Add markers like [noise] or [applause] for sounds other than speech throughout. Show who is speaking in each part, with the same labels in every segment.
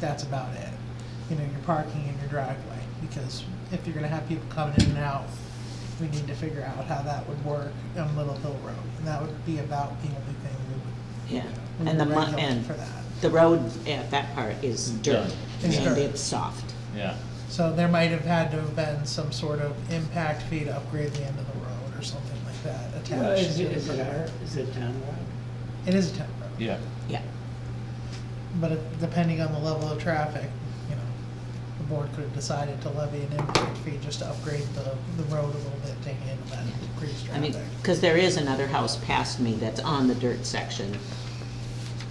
Speaker 1: that's about it. You know, your parking and your driveway, because if you're gonna have people coming in and out, we need to figure out how that would work on Little Hill Road. And that would be about the only thing we
Speaker 2: Yeah,
Speaker 1: would, we
Speaker 2: and the,
Speaker 1: would
Speaker 2: mu-
Speaker 1: regulate
Speaker 2: and
Speaker 1: for that.
Speaker 2: the road, yeah, that part is dirt,
Speaker 3: Done.
Speaker 1: It's
Speaker 2: and
Speaker 1: dirt.
Speaker 2: it's soft.
Speaker 3: Yeah,
Speaker 1: So there might have had to have been some sort of impact fee to upgrade the end of the road or something like that
Speaker 4: Well,
Speaker 1: attached.
Speaker 4: Is
Speaker 1: to
Speaker 4: it, is it
Speaker 1: the-
Speaker 4: our, is it town road?
Speaker 1: It is a town road.
Speaker 3: yeah.
Speaker 2: Yeah,
Speaker 1: But it- depending on the level of traffic, you know, the board could have decided to levy an impact fee just to upgrade the, the road a little bit to handle that increased
Speaker 2: I mean,
Speaker 1: traffic.
Speaker 2: because there is another house past me that's on the dirt section,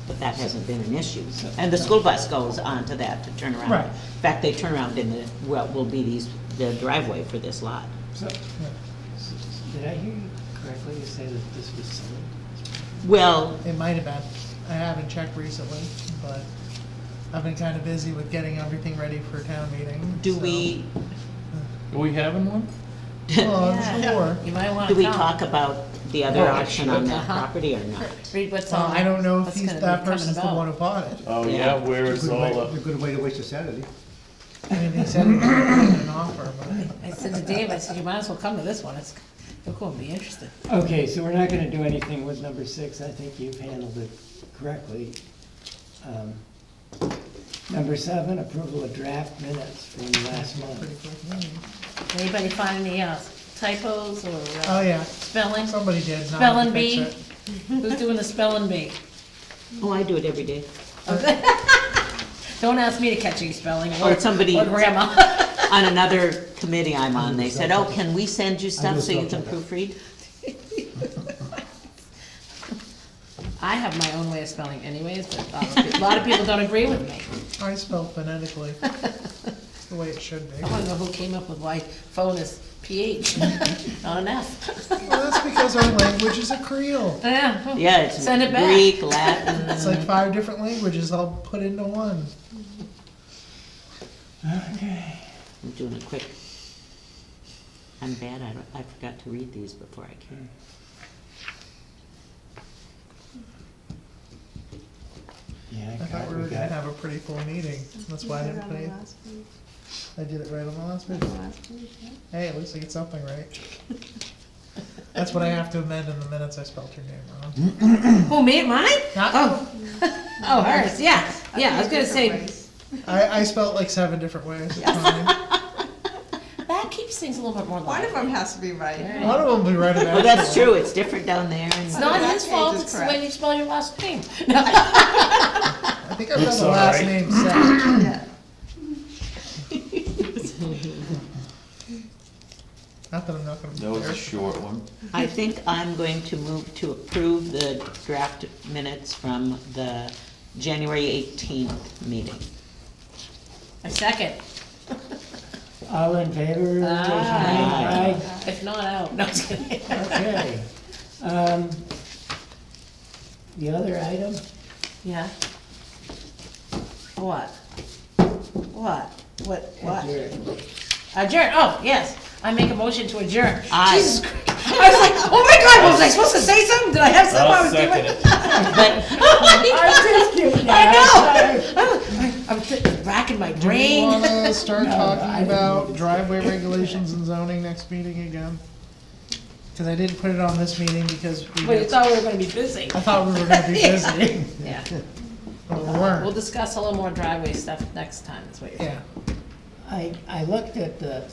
Speaker 2: but that hasn't been an issue. And the school bus goes onto that to turn around.
Speaker 1: Right.
Speaker 2: In fact, they turn around in the, what will be these, the driveway for this lot.
Speaker 4: So,
Speaker 1: Yeah.
Speaker 4: s- s- did I hear you correctly You say that this was sold?
Speaker 2: Well,
Speaker 1: It might have been, I haven't checked recently, but I've been kind of busy with getting everything ready for town meeting.
Speaker 2: do
Speaker 1: so-
Speaker 2: we,
Speaker 3: Are we having one?
Speaker 1: [laughs] Well, I'm
Speaker 5: Yeah.
Speaker 2: [laughs]
Speaker 1: sure.
Speaker 5: You might want to
Speaker 2: do we talk about the other
Speaker 3: Oh,
Speaker 2: option on that
Speaker 5: Uh-huh.
Speaker 2: property or not?
Speaker 5: Read what's
Speaker 1: Well,
Speaker 5: on.
Speaker 1: Uh, I don't know if
Speaker 5: what's
Speaker 1: he's,
Speaker 5: gonna be
Speaker 1: that
Speaker 5: coming
Speaker 1: person's the
Speaker 5: about.
Speaker 1: one who bought it.
Speaker 3: Oh,
Speaker 2: Yeah.
Speaker 3: yeah, where
Speaker 6: It's
Speaker 3: it's
Speaker 6: a good
Speaker 3: all
Speaker 6: way,
Speaker 3: up.
Speaker 6: it's a good way to waste a Saturday.
Speaker 1: I mean, they said it was an offer,
Speaker 2: [laughs]
Speaker 1: but
Speaker 5: I said to Dave, I said, you might as well come to this one, it's, it's gonna be interesting.
Speaker 4: Okay, so we're not gonna do anything with number six, I think you've handled it correctly. Um, Number seven, approval of draft minutes from last
Speaker 1: pretty
Speaker 4: month.
Speaker 1: quick.
Speaker 5: Anybody find any uh, typos or
Speaker 1: Oh,
Speaker 5: uh,
Speaker 1: yeah,
Speaker 5: spelling?
Speaker 1: somebody did. and I had to
Speaker 5: Spelling
Speaker 1: fix
Speaker 5: bee?
Speaker 1: it.
Speaker 5: Who's doing the spelling
Speaker 1: [laughs]
Speaker 5: bee?
Speaker 2: Oh, I do it every day.
Speaker 1: Uh,
Speaker 5: Don't ask me to catch any spelling.
Speaker 1: Oh,
Speaker 2: Or somebody-
Speaker 5: Or grandma.
Speaker 2: on another committee I'm on, they said, oh, can we send you
Speaker 6: I
Speaker 2: stuff
Speaker 6: do
Speaker 2: so you can
Speaker 6: stuff like
Speaker 2: proofread?
Speaker 5: [laughs] I have my own way of spelling anyways, but uh, a lot of people don't agree with me.
Speaker 1: I spelled phonetically. It's the way it should be.
Speaker 5: I wanna know who came up with why phone is PH, [laughs] not an F.
Speaker 1: Well, that's because our language is a creole.
Speaker 5: Yeah.
Speaker 2: Yeah, it's
Speaker 5: Send it back.
Speaker 2: Greek, Latin,
Speaker 1: It's like five different languages all put into one.
Speaker 4: Okay,
Speaker 2: I'm doing it quick. I'm bad, I, don't- I forgot to read these before I came.
Speaker 4: yeah,
Speaker 1: I thought
Speaker 4: God,
Speaker 1: we
Speaker 4: we
Speaker 1: were gonna
Speaker 4: got,
Speaker 1: have a pretty full meeting. That's why I didn't put it. I did it right on the last page. Hey, at least I get something right. That's what I have to amend in the minutes I spelled your name wrong.
Speaker 5: Who, me, mine?
Speaker 1: Not,
Speaker 5: [laughs] Oh, hers, yeah, yeah, I was gonna say,
Speaker 1: I, I spelled like seven different ways. It's fine.
Speaker 5: that keeps things a little bit more
Speaker 7: One
Speaker 5: light.
Speaker 7: of them has to be right.
Speaker 1: One of them will be right about
Speaker 2: Well,
Speaker 1: it.
Speaker 2: that's true, it's different down there,
Speaker 5: It's
Speaker 2: and
Speaker 5: not
Speaker 7: That
Speaker 5: his
Speaker 7: page
Speaker 5: fault,
Speaker 7: is
Speaker 5: it's the way
Speaker 7: correct.
Speaker 5: you spell your last name.
Speaker 1: I think I've done
Speaker 3: It's
Speaker 1: the
Speaker 3: all
Speaker 1: last
Speaker 3: right.
Speaker 1: name set.
Speaker 7: Yeah.
Speaker 1: Not that I'm not gonna.
Speaker 3: That was a
Speaker 1: prepare.
Speaker 3: short one.
Speaker 2: I think I'm going to move to approve the draft minutes from the January eighteenth meeting.
Speaker 5: A second,
Speaker 4: all in favor? raise your hand. Aye.
Speaker 5: if not out, no, I'm just kidding.
Speaker 4: [laughs] Okay. Um, The other item,
Speaker 5: Yeah? What? What? What, what?
Speaker 4: [laughs] adjourn.
Speaker 5: Adjourn, oh, yes, I make a motion to adjourn.
Speaker 2: Aye.
Speaker 5: Jesus Christ, I was like, oh my God, was I supposed to say something? Did I have something I
Speaker 3: I'll
Speaker 5: was [laughs]
Speaker 3: second
Speaker 5: doing? Oh
Speaker 3: it.
Speaker 2: But
Speaker 4: I'm just kidding.
Speaker 5: I know. I'm th- racking my
Speaker 1: Do we
Speaker 5: brain.
Speaker 1: wanna
Speaker 6: [laughs]
Speaker 1: start
Speaker 4: I
Speaker 1: talking
Speaker 4: didn't
Speaker 1: about driveway regulations and zoning next meeting again? Cause I didn't put it on this meeting because we,
Speaker 5: But you
Speaker 1: did-
Speaker 5: thought we were gonna be busy.
Speaker 1: I thought we were gonna be busy,
Speaker 5: [laughs] Yeah,
Speaker 1: but we
Speaker 5: we'll
Speaker 1: weren't,
Speaker 5: discuss a little more driveway stuff next time, that's what you're saying.
Speaker 1: yeah.
Speaker 4: I, I looked at the,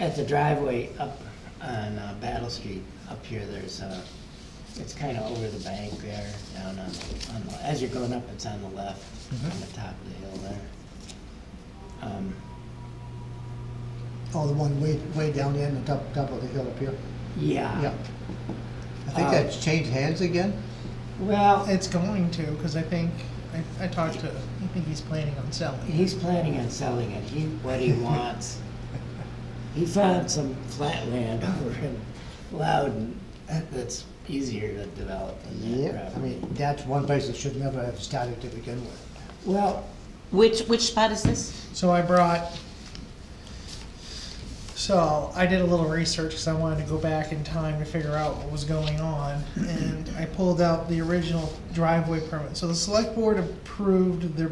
Speaker 4: at the driveway up on uh, Battle Street, up here, there's a, it's kinda over the bank there, down on, the- on, the- as you're going up, it's on the left,
Speaker 6: Mm-hmm.
Speaker 4: on the top of the hill there. Um,
Speaker 6: Oh, the one way, way down there in the top, top of the hill up here.
Speaker 4: Yeah,
Speaker 6: Yeah. I think
Speaker 4: Uh,
Speaker 6: that's changed hands again.
Speaker 4: well,
Speaker 1: It's going to, cause I think, I, I talked to, I think he's planning on selling.
Speaker 4: he's planning on selling it, he, what
Speaker 6: [laughs]
Speaker 4: he wants. He found some flat land [laughs] over in Loudon that's easier to develop than that
Speaker 6: Yeah, I
Speaker 4: property.
Speaker 6: mean, that's one place that should never have started to begin with.
Speaker 4: Well,
Speaker 2: which, which spot is this?
Speaker 1: So I brought, so I did a little research, cause I wanted to go back in time to figure out what was going on. And I pulled out the original driveway permit. So the select board approved their